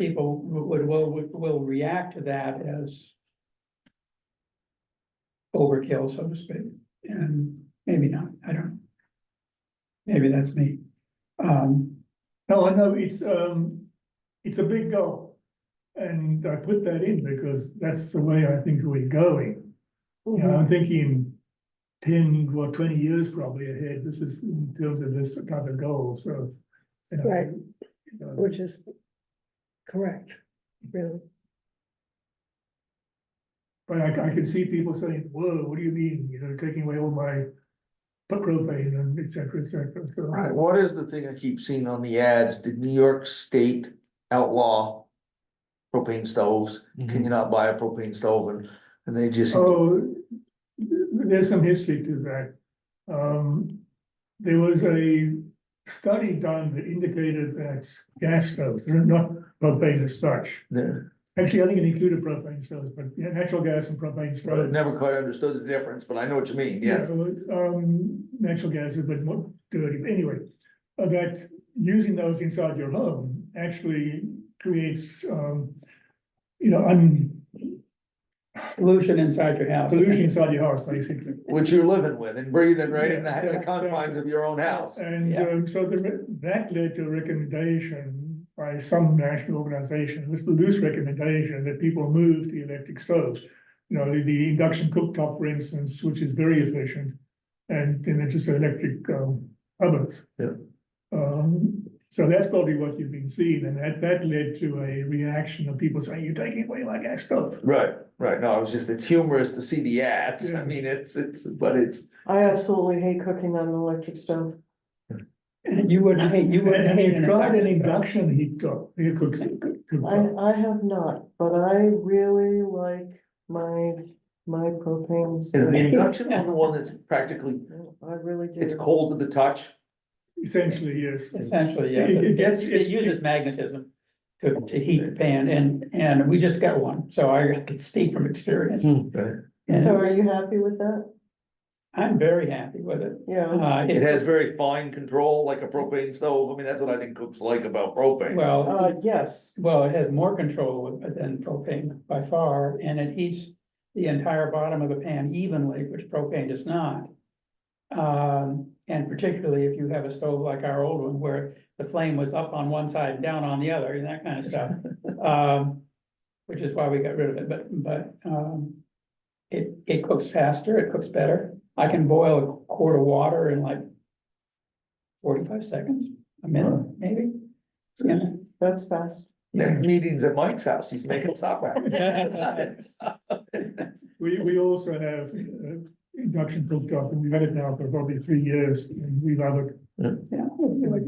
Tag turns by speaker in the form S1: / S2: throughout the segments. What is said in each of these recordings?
S1: people would, will, will react to that as overkill, so to speak, and maybe not, I don't know. Maybe that's me. Um,
S2: No, I know, it's, um, it's a big goal. And I put that in because that's the way I think we're going. You know, I'm thinking ten or twenty years probably ahead, this is in terms of this kind of goal, so. you know,
S3: Right.
S2: you know,
S3: Which is correct, really.
S2: But I, I can see people saying, whoa, what do you mean, you know, taking away all my propane and et cetera, et cetera, so.
S4: Right, what is the thing I keep seeing on the ads? Did New York State outlaw propane stoves? Can you not buy a propane stove and, and they just,
S2: Mm-hmm. Oh, there's some history to that. Um, there was a study done that indicated that gas stoves, they're not propane as such.
S4: they're-
S2: Actually, I think it included propane stoves, but yeah, natural gas and propane
S4: I
S2: stoves.
S4: never quite understood the difference, but I know what you mean, yes.
S2: Yeah, Um, natural gas is a bit more dirty, but anyway, uh, that using those inside your home actually creates, um, you know, un,
S1: pollution inside your house.
S2: pollution inside your house, basically.
S4: Which you're living with and breathing right in
S2: Yeah,
S4: the the
S2: exactly.
S4: confines of your own house.
S2: And
S1: Yeah.
S2: um, so the, re- that led to a recommendation by some national organization, it was the loose recommendation that people move to electric stoves. You know, the, the induction cooktop, for instance, which is very efficient, and then it's just electric um, ovens.
S4: Yeah.
S2: Um, so that's probably what you've been seeing, and that, that led to a reaction of people saying, you're taking away my gas stove.
S4: Right, right, no, I was just, it's humorous to see the ads, I
S2: Yeah.
S4: mean, it's, it's, but it's,
S3: I absolutely hate cooking on an electric stove.
S1: And you wouldn't hate, you
S2: And
S1: wouldn't
S2: and
S1: hate.
S2: he tried an
S1: induction.
S2: induction heat top, he cooks,
S3: I, I have not, but I really like my, my propane.
S4: is
S3: stove.
S4: the induction one the one that's practically,
S3: I really do.
S4: it's cold to the touch?
S2: essentially, yes.
S1: Essentially, yes,
S2: It- it
S1: it
S2: gets-
S1: it
S2: it's-
S1: uses magnetism to, to heat the pan, and, and we just got one, so I can speak from experience.
S2: Hmm.
S4: Right.
S1: And
S3: So are you happy with that?
S1: I'm very happy with it.
S3: Yeah,
S1: Uh,
S4: It has very fine control, like a propane stove, I mean, that's what I think cooks like about propane.
S1: Well.
S3: uh, yes,
S1: Well, it has more control than propane by far, and it heats the entire bottom of the pan evenly, which propane does not. Um, and particularly if you have a stove like our old one where the flame was up on one side and down on the other and that kind of stuff. Um, which is why we got rid of it, but, but, um, it, it cooks faster, it cooks better. I can boil a quart of water in like forty-five seconds, a minute, maybe. Yeah.
S3: that's fast.
S4: Next meeting's at Mike's house, he's making supper. Right,
S2: We, we also have uh, induction cooktop, and we've had it now for probably three years, and we love it.
S1: Yeah,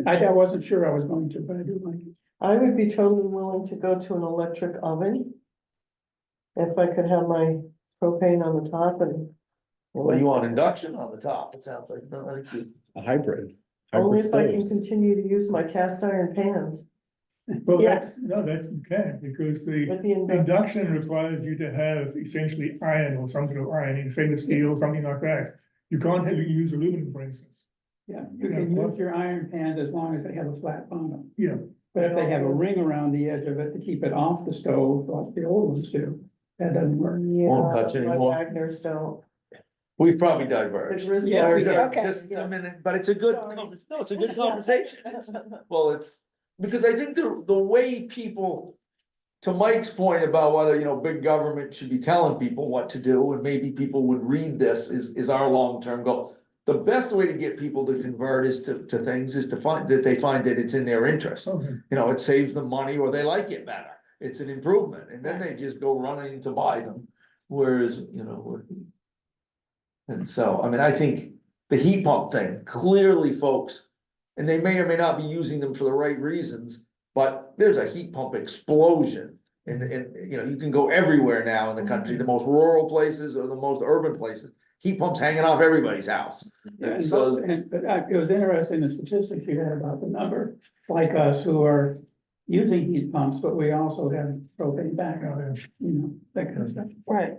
S1: I, I wasn't sure I was going to, but I do like it.
S3: I would be totally willing to go to an electric oven. If I could have my propane on the top and.
S4: Well, you want induction on the top, it sounds like, not like you-
S5: A hybrid.
S3: Only
S5: hybrid
S3: if I can
S5: stoves.
S3: continue to use my cast iron pans
S2: Well, that's, no, that's, you can, because the
S3: with the induction.
S2: induction requires you to have essentially iron or some sort of iron, stainless steel, something like that. You can't have, you use aluminum, for instance.
S1: Yeah, you can
S2: Yeah.
S1: use your iron pans as long as they have a flat bottom.
S2: Yeah.
S1: But if they have a ring around the edge of it to keep it off the stove, like the old ones do, that doesn't work.
S4: Won't
S3: Yeah,
S4: touch
S3: my
S4: anymore.
S3: Wagner's don't.
S4: We've probably
S3: The
S4: diverged.
S3: Griswold-
S1: Yeah, we did.
S3: Okay,
S4: Just a
S3: yes.
S4: minute, but it's a good,
S3: Sorry.
S4: con- no, it's a good conversation, It's- well, it's, because I think the, the way people. To Mike's point about whether, you know, big government should be telling people what to do, and maybe people would read this, is, is our long-term goal. The best way to get people to convert is to, to things, is to find, that they find that it's in their interest.
S2: Okay.
S4: You know, it saves them money or they like it better. It's an improvement and then they just go running to buy them. Whereas, you know, we're- and so, I mean, I think the heat pump thing, clearly folks, and they may or may not be using them for the right reasons, but there's a heat pump explosion. And, and, you know, you can go everywhere now in the country, the most rural places or the most urban places, heat pumps hanging off everybody's house.
S1: And
S4: so-
S1: most- and- But I- it was interesting, the statistics you had about the number, like us who are using heat pumps, but we also have propane backup, you know, that kind of stuff.
S3: Right,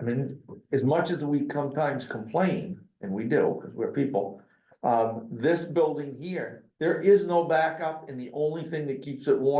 S4: I mean, as much as we sometimes complain, and we do, because we're people, um, this building here There is no backup and the only thing that keeps it warm